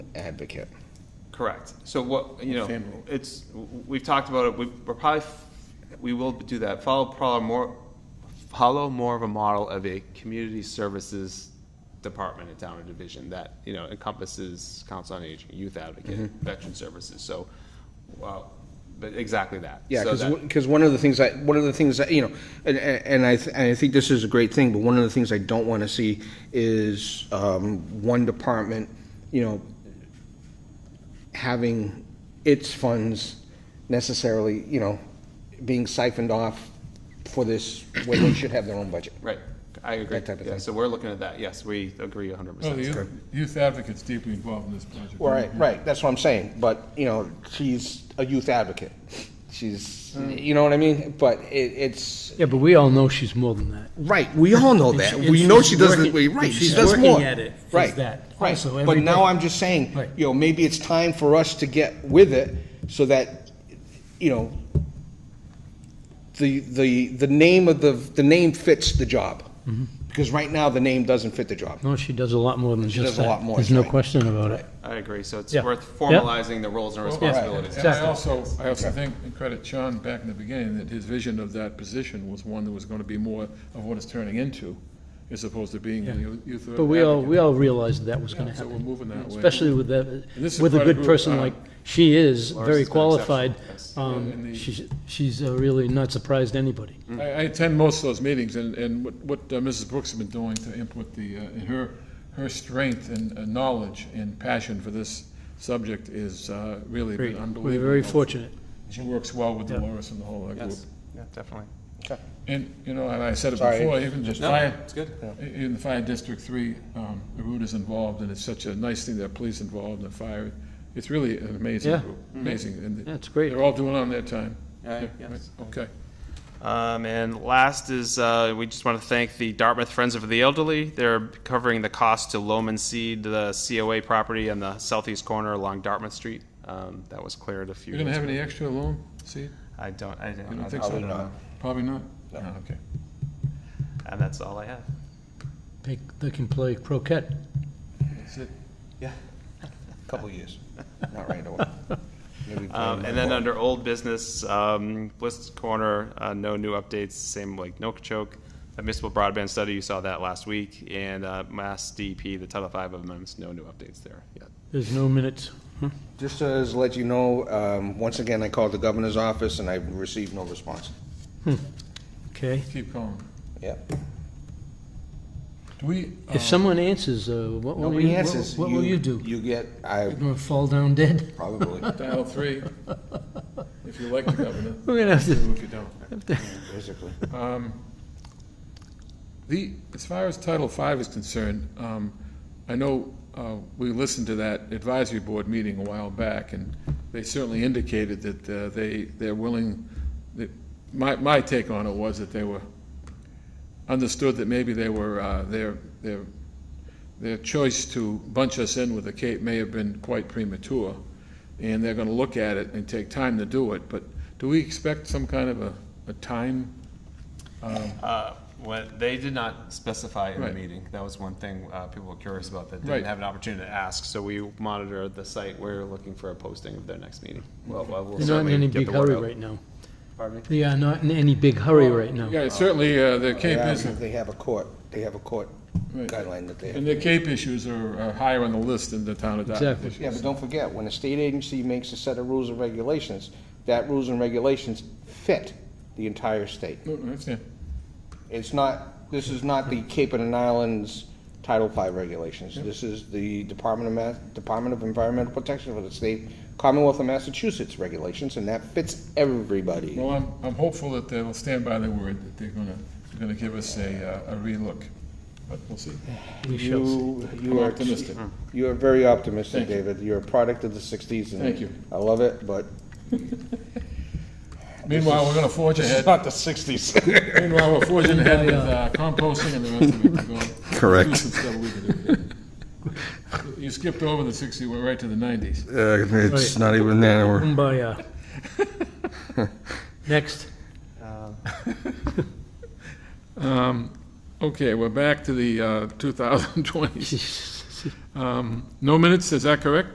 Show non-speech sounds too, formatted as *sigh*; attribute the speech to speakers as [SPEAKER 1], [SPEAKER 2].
[SPEAKER 1] advocate.
[SPEAKER 2] Correct. So what, you know,
[SPEAKER 1] Family.
[SPEAKER 2] it's, we've talked about it, we- we're probably, we will do that. Follow probably more, follow more of a model of a community services department in town or division that, you know, encompasses council on aging, youth advocate,
[SPEAKER 1] Mm-hmm.
[SPEAKER 2] veteran services, so, well, but exactly that.
[SPEAKER 1] Yeah,
[SPEAKER 2] So that-
[SPEAKER 1] because one of the things I, one of the things that, you know, and, and and I, th- and I think this is a great thing, but one of the things I don't want to see is um, one department, you know, having its funds necessarily, you know, being siphoned off for this, when they should have their own budget.
[SPEAKER 2] Right, I agree.
[SPEAKER 1] That type of
[SPEAKER 2] Yeah,
[SPEAKER 1] thing.
[SPEAKER 2] So we're looking at that, yes, we agree hundred
[SPEAKER 3] Well,
[SPEAKER 4] Oh,
[SPEAKER 2] percent.
[SPEAKER 3] the youth- youth advocate's deeply involved in this project.
[SPEAKER 1] Right, right, that's what I'm saying, but, you know, she's a youth advocate. She's,
[SPEAKER 2] Mm.
[SPEAKER 1] you know what I mean? But it, it's,
[SPEAKER 4] Yeah, but we all know she's more than that.
[SPEAKER 1] Right, we all
[SPEAKER 4] *laughs*
[SPEAKER 1] know that. We know she does this, right, she does
[SPEAKER 4] She's
[SPEAKER 1] more.
[SPEAKER 4] working at it, is
[SPEAKER 1] Right,
[SPEAKER 4] that.
[SPEAKER 1] right.
[SPEAKER 4] Also,
[SPEAKER 1] But
[SPEAKER 4] every day.
[SPEAKER 1] now I'm just saying,
[SPEAKER 4] Right.
[SPEAKER 1] you know, maybe it's time for us to get with it so that, you know, the, the, the name of the, the name fits the job.
[SPEAKER 4] Mm-hmm.
[SPEAKER 1] Because right now, the name doesn't fit the job.
[SPEAKER 4] No, she does a lot more than
[SPEAKER 1] does
[SPEAKER 4] just
[SPEAKER 1] a
[SPEAKER 4] that.
[SPEAKER 1] lot more,
[SPEAKER 4] There's no
[SPEAKER 1] right.
[SPEAKER 4] question about it.
[SPEAKER 2] I agree, so it's
[SPEAKER 4] Yeah.
[SPEAKER 2] worth
[SPEAKER 4] Yeah.
[SPEAKER 2] formalizing the roles and
[SPEAKER 3] Well,
[SPEAKER 2] responsibilities.
[SPEAKER 3] And I
[SPEAKER 4] Exactly.
[SPEAKER 3] also, I also think, and credit Sean back in the beginning, that his vision of that position was one that was going to be more of what it's turning into, as opposed to being a youth youth advocate.
[SPEAKER 4] But we all, we all realized that was gonna
[SPEAKER 3] So we're
[SPEAKER 4] happen,
[SPEAKER 3] moving that way.
[SPEAKER 4] especially with that,
[SPEAKER 3] this is
[SPEAKER 4] with a
[SPEAKER 3] quite a
[SPEAKER 4] good
[SPEAKER 3] group,
[SPEAKER 4] person
[SPEAKER 3] uh,
[SPEAKER 4] like she is,
[SPEAKER 2] Lars
[SPEAKER 4] very
[SPEAKER 2] has been exceptional
[SPEAKER 4] qualified.
[SPEAKER 2] at this.
[SPEAKER 4] Um,
[SPEAKER 3] And the-
[SPEAKER 4] She's, she's uh, really not surprised anybody.
[SPEAKER 3] I, I attend most of those meetings, and, and what, what uh, Mrs. Brooks has been doing to input the, uh, and her, her strength and uh, knowledge and passion for this subject is uh, really been
[SPEAKER 4] Great.
[SPEAKER 3] unbelievable.
[SPEAKER 4] We're very fortunate.
[SPEAKER 3] She works well with
[SPEAKER 4] Yeah.
[SPEAKER 3] Dolores and the whole uh, group.
[SPEAKER 2] Yes, yeah, definitely.
[SPEAKER 3] And, you know, and I said it
[SPEAKER 1] Sorry,
[SPEAKER 3] before, even the
[SPEAKER 2] No,
[SPEAKER 3] fire,
[SPEAKER 2] it's good.
[SPEAKER 3] in the fire district three, um, Aruta's involved, and it's such a nice thing that police involved in the fire. It's really an amazing
[SPEAKER 4] Yeah.
[SPEAKER 3] group, amazing. and
[SPEAKER 4] Yeah, it's great.
[SPEAKER 3] They're all doing it on their time.
[SPEAKER 2] Yeah,
[SPEAKER 3] Yeah,
[SPEAKER 2] yes.
[SPEAKER 3] right, Okay.
[SPEAKER 2] Um, and last is uh, we just want to thank the Dartmouth Friends of the Elderly. They're covering the cost to Loman Seed, the COA property on the southeast corner along Dartmouth Street. Um, that was cleared a few.
[SPEAKER 3] You gonna
[SPEAKER 2] days
[SPEAKER 3] have
[SPEAKER 2] ago.
[SPEAKER 3] any extra loan, see?
[SPEAKER 2] I don't. I don't,
[SPEAKER 3] You don't
[SPEAKER 2] I
[SPEAKER 3] think so?
[SPEAKER 2] don't know.
[SPEAKER 3] Probably not? No, okay.
[SPEAKER 2] And that's all I have.
[SPEAKER 4] They, they can play croquet.
[SPEAKER 3] That's it.
[SPEAKER 1] Couple of
[SPEAKER 4] *laughs*
[SPEAKER 1] years, not right away. Maybe
[SPEAKER 2] Um, and
[SPEAKER 4] uh,
[SPEAKER 2] then under old business, um, Bliss Corner, uh, no new updates. Same like Nookchoke, a municipal broadband study. You saw that last week, and uh, Mass DP, the Title V amendments. No new updates there yet.
[SPEAKER 4] There's no minutes.
[SPEAKER 1] Just to let you know, um, once again, I called the governor's office and I received no response.
[SPEAKER 4] Okay.
[SPEAKER 3] Keep going.
[SPEAKER 1] Yeah.
[SPEAKER 3] Do we, uh,
[SPEAKER 4] If someone answers, uh, what will
[SPEAKER 1] Nobody
[SPEAKER 4] you, what-
[SPEAKER 1] answers.
[SPEAKER 4] what will you do?
[SPEAKER 1] You get, I
[SPEAKER 4] Gonna fall down dead? *laughs*
[SPEAKER 1] probably,
[SPEAKER 3] dial three, if you like the governor,
[SPEAKER 4] We're gonna have to,
[SPEAKER 3] or if you don't.
[SPEAKER 1] *laughs* basically.
[SPEAKER 3] Um, The, as far as Title V is concerned, um, I know, uh, we listened to that advisory board meeting a while back, and they certainly indicated that, uh, they, they're willing, that, my, my take on it was that they were, understood that maybe they were, uh, their, their, their choice to bunch us in with the Cape may have been quite premature, and they're gonna look at it and take time to do it, but do we expect some kind of a, a time?
[SPEAKER 2] Uh, When, they did not specify in the
[SPEAKER 3] Right.
[SPEAKER 2] meeting. That was one thing uh, people were curious about that didn't
[SPEAKER 3] Right.
[SPEAKER 2] have an opportunity to ask. So we monitor the site. We're looking for a posting of their next meeting. Well, well, we'll
[SPEAKER 4] they're not in
[SPEAKER 2] certainly
[SPEAKER 4] any
[SPEAKER 2] get
[SPEAKER 4] big
[SPEAKER 2] the word
[SPEAKER 4] hurry
[SPEAKER 2] out.
[SPEAKER 4] right now.
[SPEAKER 2] Pardon me?
[SPEAKER 4] They are not in any big hurry right now.
[SPEAKER 3] Yeah, certainly, uh,
[SPEAKER 1] They
[SPEAKER 3] the Cape
[SPEAKER 1] have-
[SPEAKER 3] is,
[SPEAKER 1] Um, They have a court, they have a court
[SPEAKER 3] Right.
[SPEAKER 1] guideline that they have.
[SPEAKER 3] And the Cape issues are are higher on the list than the town of Dartmouth
[SPEAKER 4] Exactly.
[SPEAKER 3] issues.
[SPEAKER 1] Yeah, but don't forget, when a state agency makes a set of rules and regulations, that rules and regulations fit the entire state.
[SPEAKER 3] No, I understand.
[SPEAKER 1] It's not, this is not the Cape and Islands Title V regulations. This is the Department of Ma, Department of Environmental Protection for the state, Commonwealth of Massachusetts regulations, and that fits everybody.
[SPEAKER 3] Well, I'm, I'm hopeful that they'll stand by their word, that they're gonna, they're gonna give us a, uh, a relook, but we'll see.
[SPEAKER 4] We shall see.
[SPEAKER 1] You, you
[SPEAKER 3] I'm
[SPEAKER 1] are
[SPEAKER 3] optimistic.
[SPEAKER 1] You are very optimistic,
[SPEAKER 3] Thank you.
[SPEAKER 1] David. You're a product of the sixties, and
[SPEAKER 3] Thank you.
[SPEAKER 1] I love it, but
[SPEAKER 3] Meanwhile, we're gonna forge
[SPEAKER 1] it's *laughs*
[SPEAKER 3] ahead,
[SPEAKER 1] not the sixties.
[SPEAKER 3] meanwhile, we're forging ahead with uh, composting and the rest of it to go.
[SPEAKER 5] Correct.
[SPEAKER 3] Do some stuff we can do. You skipped over the sixty, we're right to the nineties.
[SPEAKER 5] Uh, it's not even that. We're, *laughs*
[SPEAKER 4] Kumbaya. Next. *laughs*
[SPEAKER 3] Okay,
[SPEAKER 4] *laughs*
[SPEAKER 3] we're back to the, uh, two thousand twenties.
[SPEAKER 4] Jeez.
[SPEAKER 3] Um, no minutes, is that correct?